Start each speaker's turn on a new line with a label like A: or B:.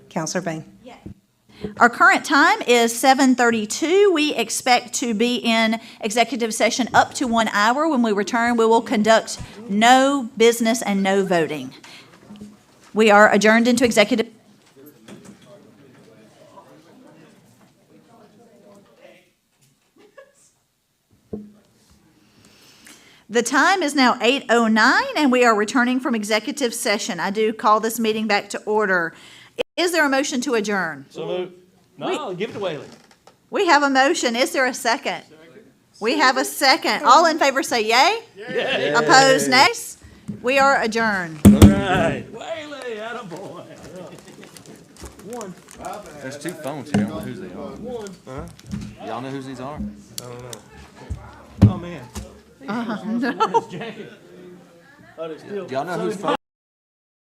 A: Counselor Bain.
B: Our current time is 7:32. We expect to be in executive session up to one hour. When we return, we will conduct no business and no voting. We are adjourned into executive. The time is now 8:09, and we are returning from executive session. I do call this meeting back to order. Is there a motion to adjourn?
C: So moved. No, give it to Whaley.
B: We have a motion. Is there a second? We have a second. All in favor say yay. Opposed, nays. We are adjourned.
C: Hey, Whaley, attaboy.
D: There's two phones here. I don't know whose they are. Y'all know whose these are?
C: Oh, man. Uh-huh. Oh, they're still.
D: Y'all know whose phone?